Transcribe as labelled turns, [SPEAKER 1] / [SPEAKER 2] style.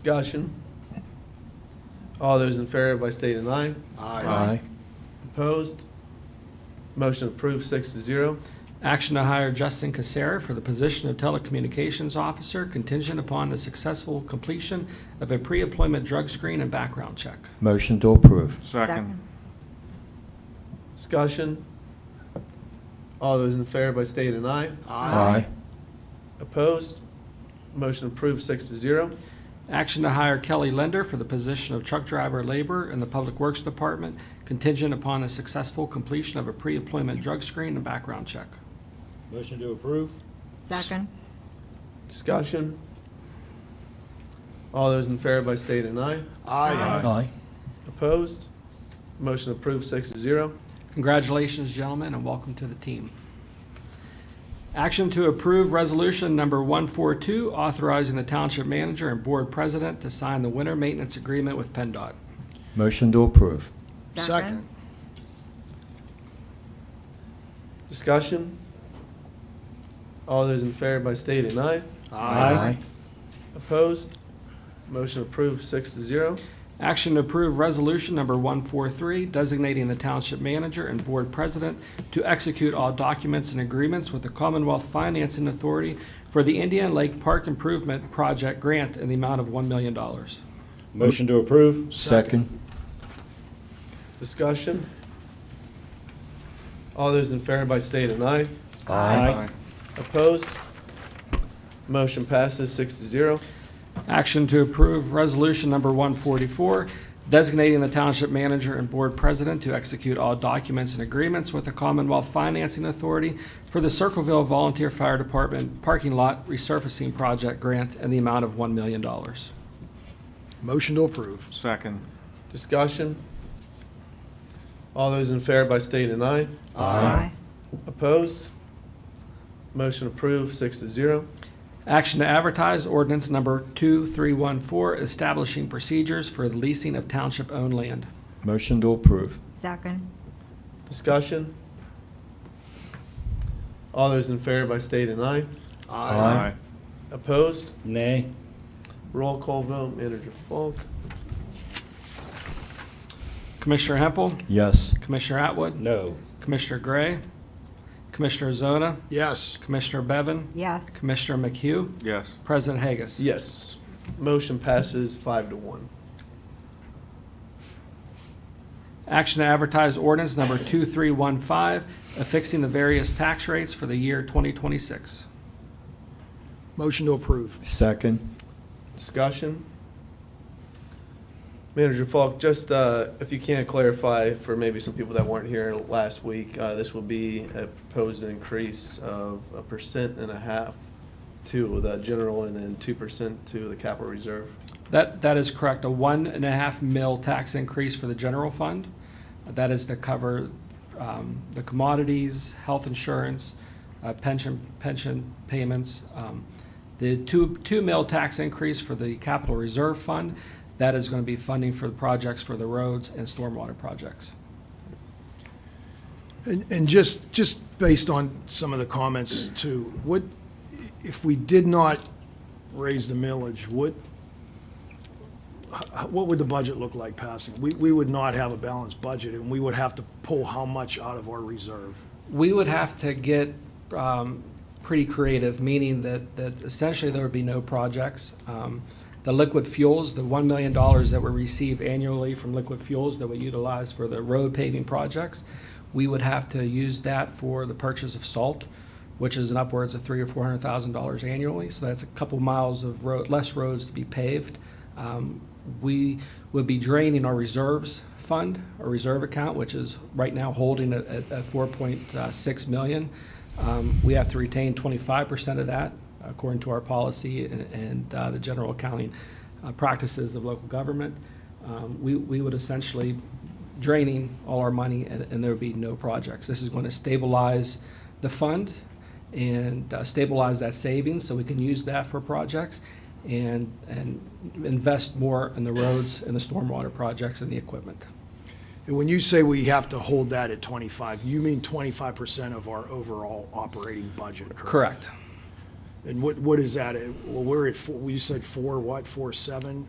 [SPEAKER 1] Discussion. All those in favor by state and I.
[SPEAKER 2] Aye.
[SPEAKER 1] Opposed? Motion approved, six to zero.
[SPEAKER 3] Action to hire Justin Casera for the position of telecommunications officer contingent upon the successful completion of a pre-employment drug screen and background check.
[SPEAKER 2] Motion to approve.
[SPEAKER 4] Second.
[SPEAKER 1] Discussion. All those in favor by state and I.
[SPEAKER 2] Aye.
[SPEAKER 1] Opposed? Motion approved, six to zero.
[SPEAKER 3] Action to hire Kelly Lender for the position of truck driver laborer in the Public Works Department contingent upon the successful completion of a pre-employment drug screen and background check.
[SPEAKER 5] Motion to approve?
[SPEAKER 4] Second.
[SPEAKER 1] Discussion. All those in favor by state and I.
[SPEAKER 4] Aye.
[SPEAKER 2] Aye.
[SPEAKER 1] Opposed? Motion approved, six to zero.
[SPEAKER 3] Congratulations, gentlemen, and welcome to the team. Action to approve resolution number 142, authorizing the township manager and board president to sign the winter maintenance agreement with PennDOT.
[SPEAKER 2] Motion to approve.
[SPEAKER 4] Second.
[SPEAKER 1] Discussion. All those in favor by state and I. Opposed? Motion approved, six to zero.
[SPEAKER 3] Action to approve resolution number 143, designating the township manager and board president to execute all documents and agreements with the Commonwealth Financing Authority for the Indian Lake Park Improvement Project grant in the amount of $1 million.
[SPEAKER 5] Motion to approve?
[SPEAKER 2] Second.
[SPEAKER 1] Discussion. All those in favor by state and I.
[SPEAKER 5] Aye.
[SPEAKER 1] Opposed? Motion passes six to zero.
[SPEAKER 3] Action to approve Resolution Number 144, designating the Township Manager and Board President to execute all documents and agreements with the Commonwealth Financing Authority for the Circleville Volunteer Fire Department Parking Lot Resurfacing Project Grant and the amount of $1 million.
[SPEAKER 6] Motion to approve.
[SPEAKER 7] Second.
[SPEAKER 1] Discussion. All those in favor by state and I.
[SPEAKER 4] Aye.
[SPEAKER 1] Opposed? Motion approved, six to zero.
[SPEAKER 3] Action to advertise ordinance Number 2314, establishing procedures for the leasing of township-owned land.
[SPEAKER 2] Motion to approve.
[SPEAKER 4] Second.
[SPEAKER 1] Discussion. All those in favor by state and I.
[SPEAKER 2] Aye.
[SPEAKER 1] Opposed?
[SPEAKER 5] Nay.
[SPEAKER 1] Roll call vote, Manager Falk.
[SPEAKER 3] Commissioner Hempel,
[SPEAKER 2] Yes.
[SPEAKER 3] Commissioner Atwood,
[SPEAKER 5] No.
[SPEAKER 3] Commissioner Gray, Commissioner Zona,
[SPEAKER 6] Yes.
[SPEAKER 3] Commissioner Bevan,
[SPEAKER 4] Yes.
[SPEAKER 3] Commissioner McHugh,
[SPEAKER 7] Yes.
[SPEAKER 3] President Hagus.
[SPEAKER 1] Yes. Motion passes five to one.
[SPEAKER 3] Action to advertise ordinance number 2315, affixing the various tax rates for the year 2026.
[SPEAKER 6] Motion to approve.
[SPEAKER 2] Second.
[SPEAKER 1] Discussion. Manager Falk, just uh, if you can clarify for maybe some people that weren't here last week, uh, this will be a proposed increase of a percent and a half to the general and then two percent to the capital reserve.
[SPEAKER 3] That, that is correct, a one and a half mil tax increase for the general fund. That is to cover um, the commodities, health insurance, uh, pension, pension payments. Um, The two, two mil tax increase for the capital reserve fund, that is going to be funding for the projects for the roads and stormwater projects.
[SPEAKER 6] And, and just, just based on some of the comments too, what, if we did not raise the millage, what, h- what would the budget look like passing? We, we would not have a balanced budget and we would have to pull how much out of our reserve?
[SPEAKER 3] We would have to get um, pretty creative, meaning that, that essentially there would be no projects. Um, The liquid fuels, the $1 million that we receive annually from liquid fuels that we utilize for the road paving projects, we would have to use that for the purchase of salt, which is an upwards of three or $400,000 annually. So that's a couple miles of road, less roads to be paved. Um, We would be draining our reserves fund, our reserve account, which is right now holding at, at at 4.6 million. Um, We have to retain 25% of that according to our policy and, and uh, the general accounting uh, practices of local government. Um, We, we would essentially draining all our money and, and there would be no projects. This is going to stabilize the fund and uh, stabilize that savings so we can use that for projects and, and invest more in the roads and the stormwater projects and the equipment.
[SPEAKER 6] And when you say we have to hold that at twenty-five, you mean twenty-five percent of our overall operating budget, correct?
[SPEAKER 3] Correct.
[SPEAKER 6] And what, what is that? Well, we're at, four- you said four, what, four, seven?